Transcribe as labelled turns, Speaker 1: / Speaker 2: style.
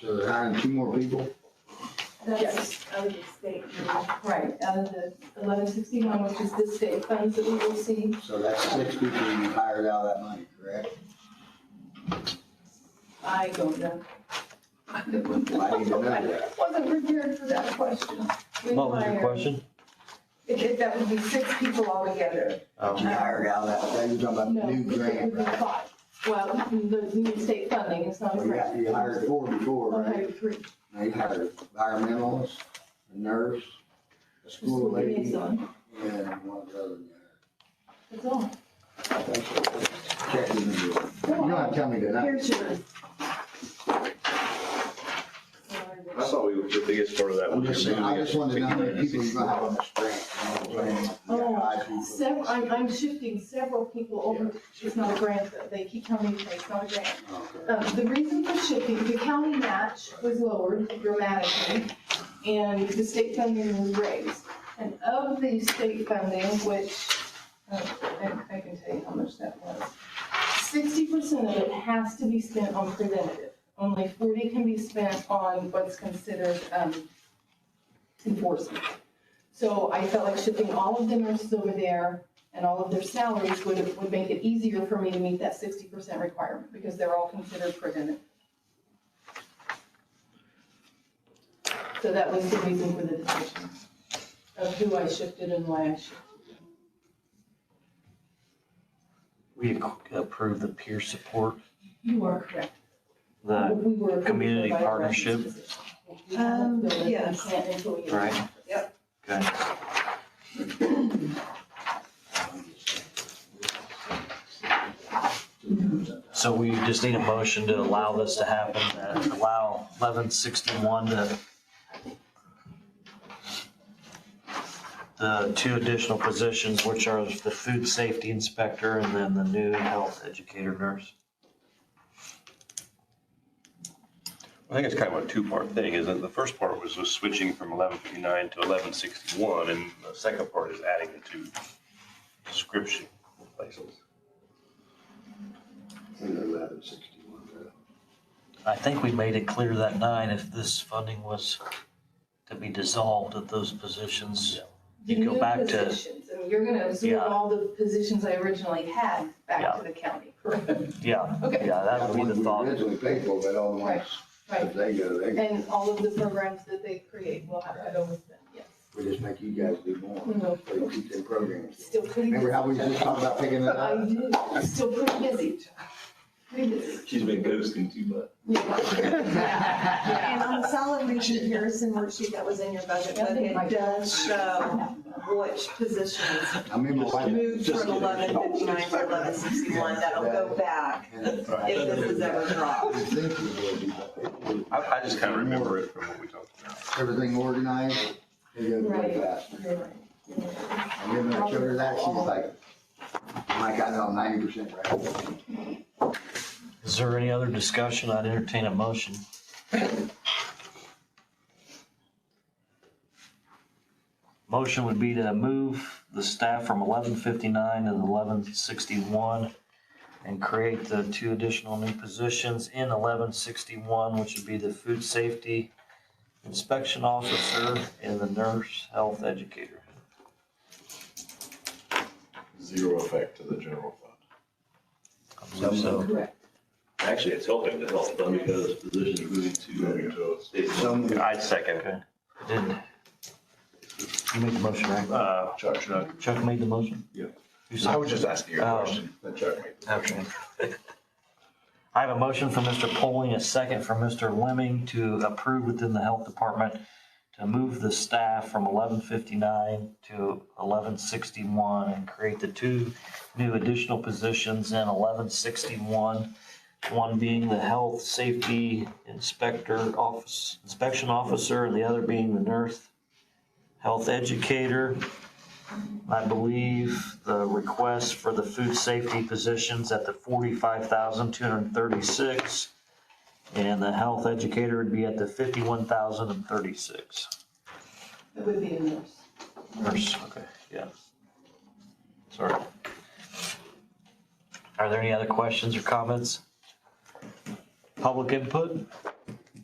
Speaker 1: So they're hiring two more people?
Speaker 2: That's, I would state,
Speaker 3: Right, out of the eleven sixty-one, which is the state funds that we will see.
Speaker 1: So that's six people you hired out of that money, correct?
Speaker 3: I don't know. I
Speaker 1: I need to know that.
Speaker 3: Wasn't prepared for that question. We
Speaker 4: What was your
Speaker 3: hired-
Speaker 4: question?
Speaker 3: It- it- That would be six people altogether.
Speaker 1: You hired out of that, you're talking
Speaker 3: No,
Speaker 1: about the
Speaker 3: it
Speaker 1: new grant,
Speaker 3: would be
Speaker 1: right?
Speaker 3: five. Well, the new state funding is not a
Speaker 1: Well, you
Speaker 3: grant.
Speaker 1: got- You hired four before,
Speaker 3: I'll
Speaker 1: right?
Speaker 3: hire three.
Speaker 1: Now you hired environmentalist, a nurse, a
Speaker 3: Just
Speaker 1: school
Speaker 3: look at
Speaker 1: lady,
Speaker 3: these
Speaker 1: and
Speaker 3: on.
Speaker 1: one of the other. guy.
Speaker 3: That's all.
Speaker 1: I think so. Check the video. You don't have to tell me tonight.
Speaker 3: Here's yours.
Speaker 5: I thought we, the biggest part of that
Speaker 1: I'm
Speaker 5: was.
Speaker 1: just saying, I just wanted to know how many people you're gonna have on
Speaker 5: Well,
Speaker 1: this grant. you know what I'm saying? You
Speaker 3: Oh,
Speaker 1: got five people.
Speaker 3: Several, I'm, I'm shifting several people over. It's not a grant, though. They keep telling me it's not a grant.
Speaker 1: Okay.
Speaker 3: Um, The reason for shifting, the county match was lowered dramatically, and the state funding was raised. And of the state funding, which, uh, I I can tell you how much that was, sixty percent of it has to be spent on preventative. Only forty can be spent on what's considered um, enforcement. So I felt like shifting all of the nurses over there and all of their salaries would, would make it easier for me to meet that sixty percent requirement, because they're all considered preventive. So that was the reason for the decision of who I shifted and why I shifted.
Speaker 4: We ac- approved the peer support,
Speaker 3: You are correct.
Speaker 4: the,
Speaker 3: We were-
Speaker 4: Uh, community
Speaker 3: we were-
Speaker 4: partnership?
Speaker 3: We haven't filled it. We
Speaker 2: yes.
Speaker 3: can't until we-
Speaker 4: right? Yep. Okay. So we just need a motion to allow this to happen, uh, allow eleven sixty-one to the two additional positions, which are the food safety inspector and then the new health educator nurse.
Speaker 5: I think it's kind of a two-part thing, isn't it? The first part was was switching from eleven fifty-nine to eleven sixty-one, and the second part is adding the two description places.
Speaker 1: I think they're eleven sixty-one, uh, right?
Speaker 4: I think we made it clear that night, if this funding was to be dissolved, that those positions,
Speaker 3: The
Speaker 4: You go
Speaker 3: new
Speaker 4: back to-
Speaker 3: positions, and you're gonna absorb
Speaker 4: Yeah.
Speaker 3: all the positions I originally had back
Speaker 4: Yeah.
Speaker 3: to the county.
Speaker 4: yeah,
Speaker 3: Okay,
Speaker 4: yeah, that would be the thought.
Speaker 1: We originally paid for, but all the ones,
Speaker 3: right,
Speaker 1: if they go, they go.
Speaker 3: and all of the programs that they create will have to go with them, yes.
Speaker 1: We just make you guys do more,
Speaker 2: Mm-hmm.
Speaker 3: No.
Speaker 1: so you keep their programs.
Speaker 3: Still pretty busy.
Speaker 1: Remember how we just talked about picking it
Speaker 3: I
Speaker 1: up?
Speaker 3: do, still pretty busy. Pretty busy.
Speaker 6: She's been ghosting too much.
Speaker 2: And on the solid lead comparison worksheet that was in your budget, but it does show which positions
Speaker 1: I mean, my wife.
Speaker 2: moved from eleven fifty-nine to eleven sixty-one. That'll go back
Speaker 1: and
Speaker 2: if this is ever dropped.
Speaker 1: I was thinking it would be, but it
Speaker 5: I, I just kind of remember it from what we talked about.
Speaker 1: was Everything organized, it goes way faster.
Speaker 3: You're right.
Speaker 1: And then when I showed her that, she was like, Mike, I know I'm ninety percent right.
Speaker 4: Is there any other discussion? I'd entertain a motion. Motion would be to move the staff from eleven fifty-nine to eleven sixty-one and create the two additional new positions in eleven sixty-one, which would be the food safety inspection officer and the nurse health educator.
Speaker 6: Zero effect to the general fund.
Speaker 4: I believe so.
Speaker 3: Correct.
Speaker 6: Actually, it's helping the health fund because positions are moving to uh, state.
Speaker 1: So many
Speaker 5: I'd second.
Speaker 4: I Didn't. You made the motion, right?
Speaker 5: Uh,
Speaker 6: Chuck, Chuck.
Speaker 4: Chuck made the motion?
Speaker 6: Yeah.
Speaker 4: Who seconded?
Speaker 6: just asking you
Speaker 4: Oh.
Speaker 6: Let Chuck make it.
Speaker 4: Okay. I have a motion from Mr. Poling, a second from Mr. Lemming to approve within the Health Department to move the staff from eleven fifty-nine to eleven sixty-one and create the two new additional positions in eleven sixty-one. One being the Health Safety Inspector Office, Inspection Officer, and the other being the Nurse Health Educator. I believe the request for the food safety positions at the forty-five thousand, two hundred and thirty-six. And the health educator would be at the fifty-one thousand and thirty-six.
Speaker 3: It would be a nurse.
Speaker 4: Nurse, okay, yeah. Sorry. Are there any other questions or comments? Public input?